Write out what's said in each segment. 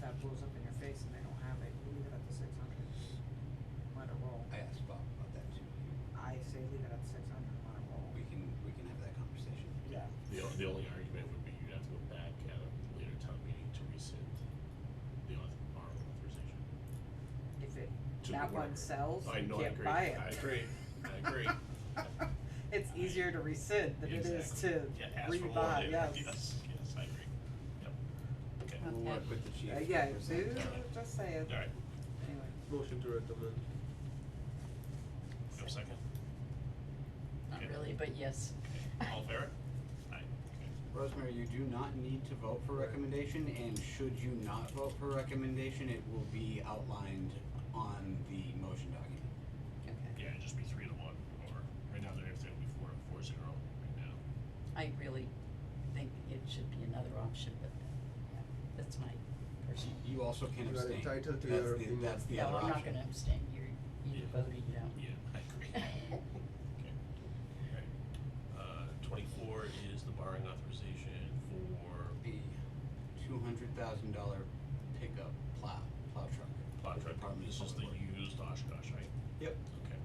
that blows up in your face and they don't have it, you leave it at the six hundred. Let it roll. I asked Bob about that too. I say leave it at six hundred, let it roll. We can, we can have that conversation. Yeah. The, o- the only argument would be you'd have to go back at a later town meeting to rescind the auth- our authorization. If it, To that the one whatever. sells, I you know, I can't agree. buy it. I agree. I agree. It's easier to rescind than it is to Exactly. Yeah, ask for more rebuy, later. yes. Yes, yes, I agree. Yep. Okay, Uh, all We'll work with the chief. Uh, to Yeah, present dude, that. just say it. right, Anyway. Motion to recommend. no second. Not really, but yes. Okay, all in favor? Aye. Rosemary, you do not need to vote for recommendation, and should you not vote for recommendation, it will be outlined on the motion document. Okay. Okay. Yeah, it'd just be three to one, or right now, they're, they're gonna be four, four zero right now. I really think it should be another option, but yeah, that's my personal. You also can You are abstain. entitled That's to your the- opinion. That's the No, other I'm not option. gonna abstain. You're, Yeah. you voted, you don't. Yeah, I agree. Okay, all right. Uh, twenty-four is the borrowing authorization for The two hundred thousand dollar pickup plow, plow truck. plot with truck, Department of this is the Public Works. used Oshkosh, right? Yep. Okay,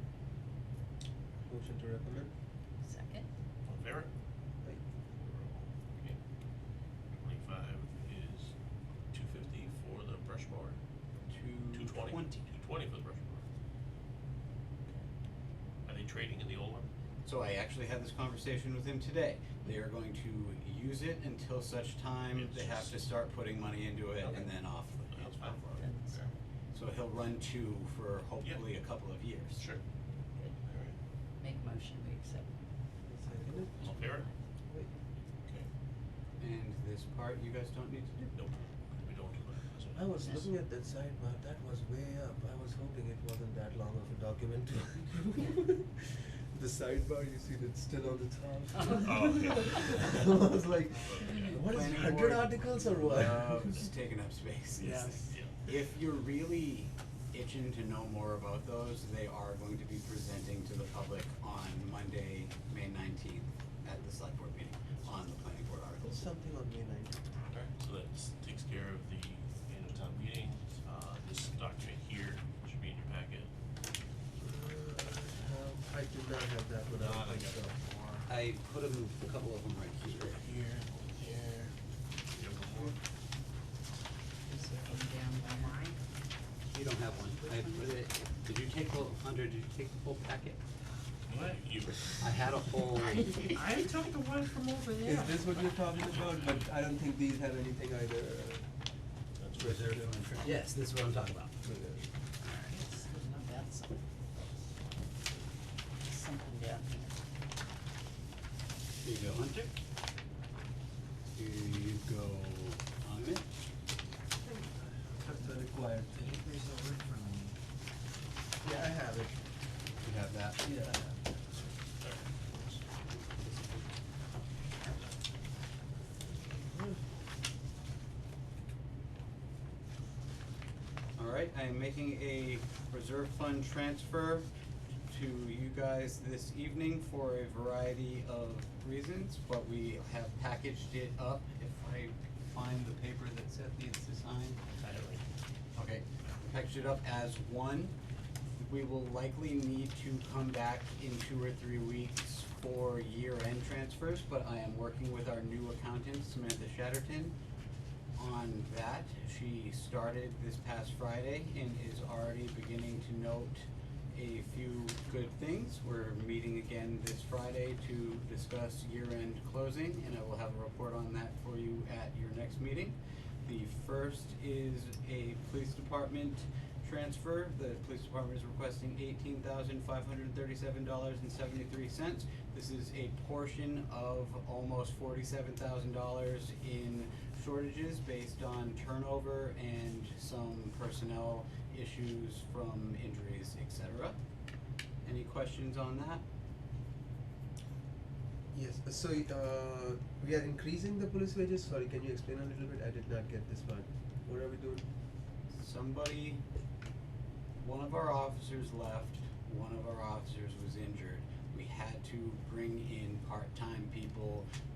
Motion to recommend. Second? all in favor? Aye. Okay. Twenty-five is two fifty for the brush mower, two Two twenty. Mm, twenty. Two twenty for the brush mower. Are they trading in the old one? So I actually had this conversation with him today. They are going to use it until such time It's they have just- to start putting money into it Okay. and then off. That's fine. That's Fair. So he'll run two for hopefully a couple of years. Sure. good. All right, Make motion, we accept. Second it. all in favor? Wait. Okay, And this part you guys don't need to do. nope, we don't do that. That's I what- was looking at that side, but that was way up. I was hoping it wasn't that long of a document to The sidebar, you see that's still on the top. Oh, yeah. I was like, Okay. what is Planning hundred board articles or what? Um, Loves taking up space. Yes. Yeah. If you're really itching to know more about those, they are going to be presenting to the public on Monday, May nineteenth, at the select board meeting, on the planning board There's articles. something on May ninth. Alright, so that takes care of the annual town meeting, uh, this document here should be in your packet. Uh, Um, I did not have that one. Nah, I they think Uh, got so. more. I put 'em- a couple of them right here. Here, over there. You have one more? Just looking down there. You don't have one, I put it, did you take the, under, did you take the whole packet? What? You, I had a whole, I took the one from over there. Is this what you're talking about? But I don't think these have anything either. that's what Reserve of interest. yes, this is what I'm talking about. Reserve. Yes, no, that's something. Something down here. Here you go, Hunter. Here you go, Amit. That's the required I thing. think there's a word from me. Yeah, I have it. You have that. Yeah, I have it. All right, I am making a reserve fund transfer to you guys this evening for a variety of reasons, but we have packaged it up. If I find the paper that Seth needs to sign. I don't Okay, package it up as one. We will likely need to come back in two or three weeks for year-end transfers, but I am working with our new accountant, Samantha Shatterton, on that. She started this past Friday and is already beginning to note a few good things. We're meeting again this Friday to discuss year-end closing, and I will have a report on that for you at your next meeting. The first is a police department transfer. The police department is requesting eighteen thousand five hundred thirty-seven dollars and seventy-three cents. This is a portion of almost forty-seven thousand dollars in shortages based on turnover and some personnel issues from injuries, et cetera. Any questions on that? Yes, so uh, we are increasing the police wages. Sorry, can you explain a little bit? I did not get this part. What are we doing? somebody, one of our officers left, one of our officers was injured. We had to bring in part-time people